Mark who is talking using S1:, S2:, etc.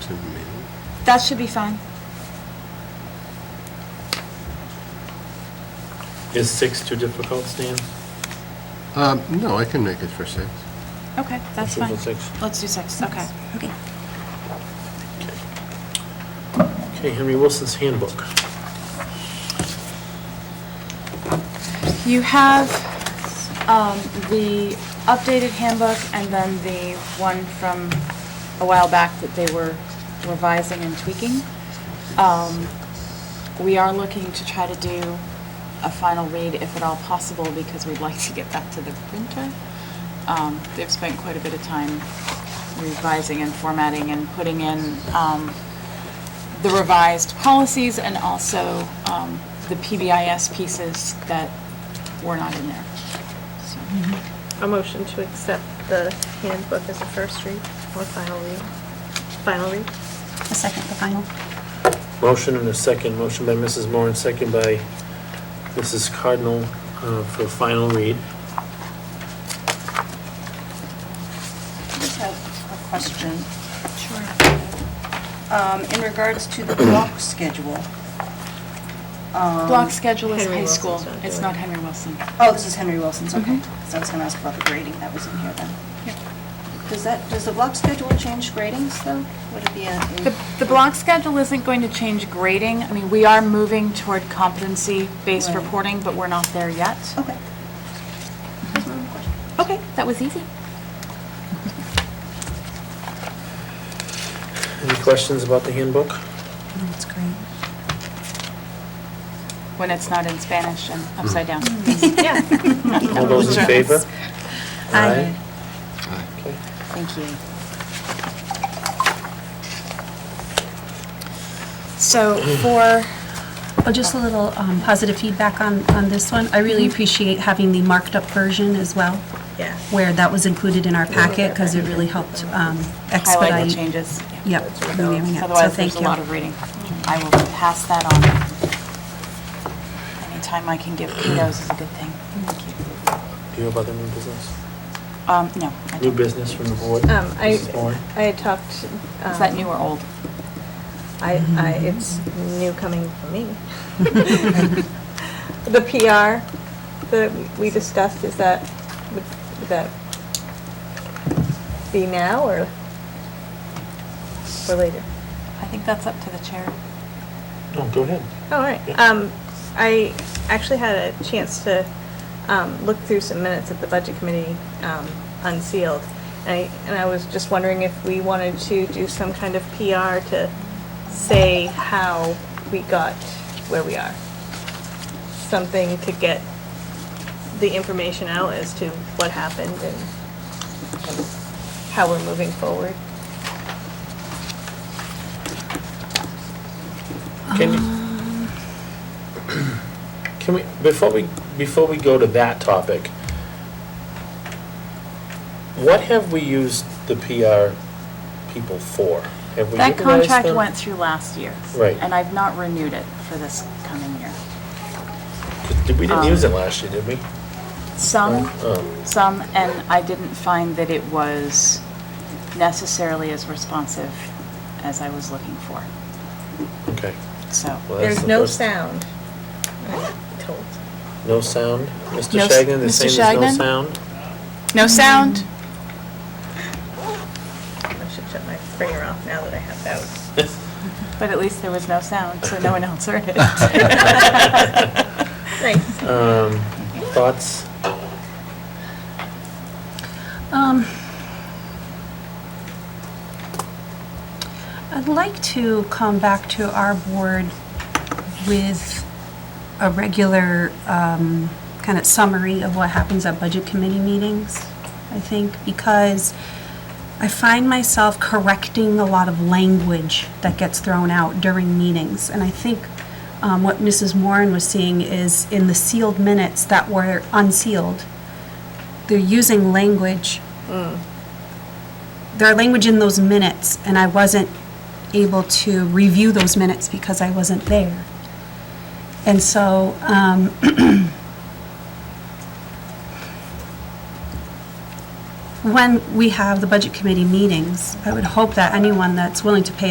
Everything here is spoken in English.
S1: to the meeting.
S2: That should be fine.
S3: Is six too difficult, Stan?
S1: Um, No, I can make it for six.
S2: Okay, that's
S3: Let's do
S2: fine.
S3: six.
S2: Let's do six, okay.
S4: Okay.
S3: Okay, Henry Wilson's handbook.
S2: You have um, the updated handbook and then the one from a while back that they were revising and tweaking. Um, We are looking to try to do a final read if at all possible because we'd like to get back to the printer. Um, They've spent quite a bit of time revising and formatting and putting in um, the revised policies and also um, the PBIS pieces that were not in there. So,
S5: A motion to accept the handbook as a first read or final read. Final read?
S4: A second, the final.
S3: Motion and a second, motion by Mrs. Moore and second by Mrs. Cardinal uh, for final read.
S6: Just have a question.
S4: Sure.
S6: Um, In regards to the block schedule. um,
S2: Block schedule is
S5: Henry
S2: high
S5: Wilson's
S2: school,
S5: not
S2: it's
S5: doing
S2: not
S5: it.
S2: Henry Wilson.
S6: Oh, this is Henry Wilson's, okay.
S2: Mhm.
S6: So I was going to ask about the grading that was in here then. Does that, does the block schedule change gradings though? Would it be a?
S2: The, the block schedule isn't going to change grading. I mean, we are moving toward competency-based
S6: Right.
S2: reporting, but we're not there yet.
S4: Oh,
S6: Okay. That's my only question.
S2: Okay, that was easy.
S3: Any questions about the handbook?
S4: That's great.
S2: When it's not in Spanish and upside down.
S4: Mm.
S3: All those in favor?
S4: Aye.
S1: Aye.
S3: Okay.
S2: Thank you. So for
S4: Oh, just a little um, positive feedback on, on this one. I really
S2: Mm-hmm.
S4: appreciate having the marked up version as well,
S5: Yeah.
S4: where that was included in our packet, because it really helped um, expedite.
S2: highlight the changes.
S4: Yep, reviewing it. So
S2: Otherwise,
S4: thank
S2: there's a
S4: you.
S2: lot of reading. I will pass that on. Anytime I can give kudos is a good thing.
S3: Do you have other new business?
S2: Um, no. I
S3: New
S2: don't.
S3: business from the board?
S5: Um, I,
S3: Mrs. Moore?
S5: I had talked. um,
S2: Is that new or old?
S5: I, I, it's new coming from me. The PR that we discussed, is that, would would that be now or, or later?
S2: I think that's up to the chair.
S3: No, go ahead.
S5: All right.
S3: Yeah.
S5: Um, I actually had a chance to, um, look through some minutes at the budget committee, um, unsealed. And I, and I was just wondering if we wanted to do some kind of PR to say how we got where we are. Something to get the information out as to what happened and and how we're moving forward.
S3: Can you, can we, before we, before we go to that topic, what have we used the PR people for? Have we
S2: That
S3: utilized
S2: contract
S3: them?
S2: went through last year.
S3: Right.
S2: And I've not renewed it for this coming year.
S3: Did- We didn't
S2: um,
S3: use it last year, did we?
S2: Some,
S3: Oh.
S2: some, and I didn't find that it was necessarily as responsive as I was looking for,
S3: Okay.
S2: so.
S3: Well, that's
S5: There's
S3: the
S5: no
S3: first-
S5: sound, I'm told.
S3: No sound? Mr.
S2: No s-
S3: Shagnon, they're
S2: Mr.
S3: saying
S2: Shagnon?
S3: there's no sound?
S2: No sound?
S5: I should shut my ringer off now that I have that.
S2: But at least there was no sound, so no one else heard it.
S5: Nice.
S3: Um, thoughts?
S4: Um, I'd like to come back to our board with a regular um, kind of summary of what happens at budget committee meetings, I think, because I find myself correcting a lot of language that gets thrown out during meetings. And I think um, what Mrs. Moran was seeing is in the sealed minutes that were unsealed, they're using language. There are language in those minutes, and I wasn't able to review those minutes because I wasn't there. And so, um, when we have the budget committee meetings, I would hope that anyone that's willing to pay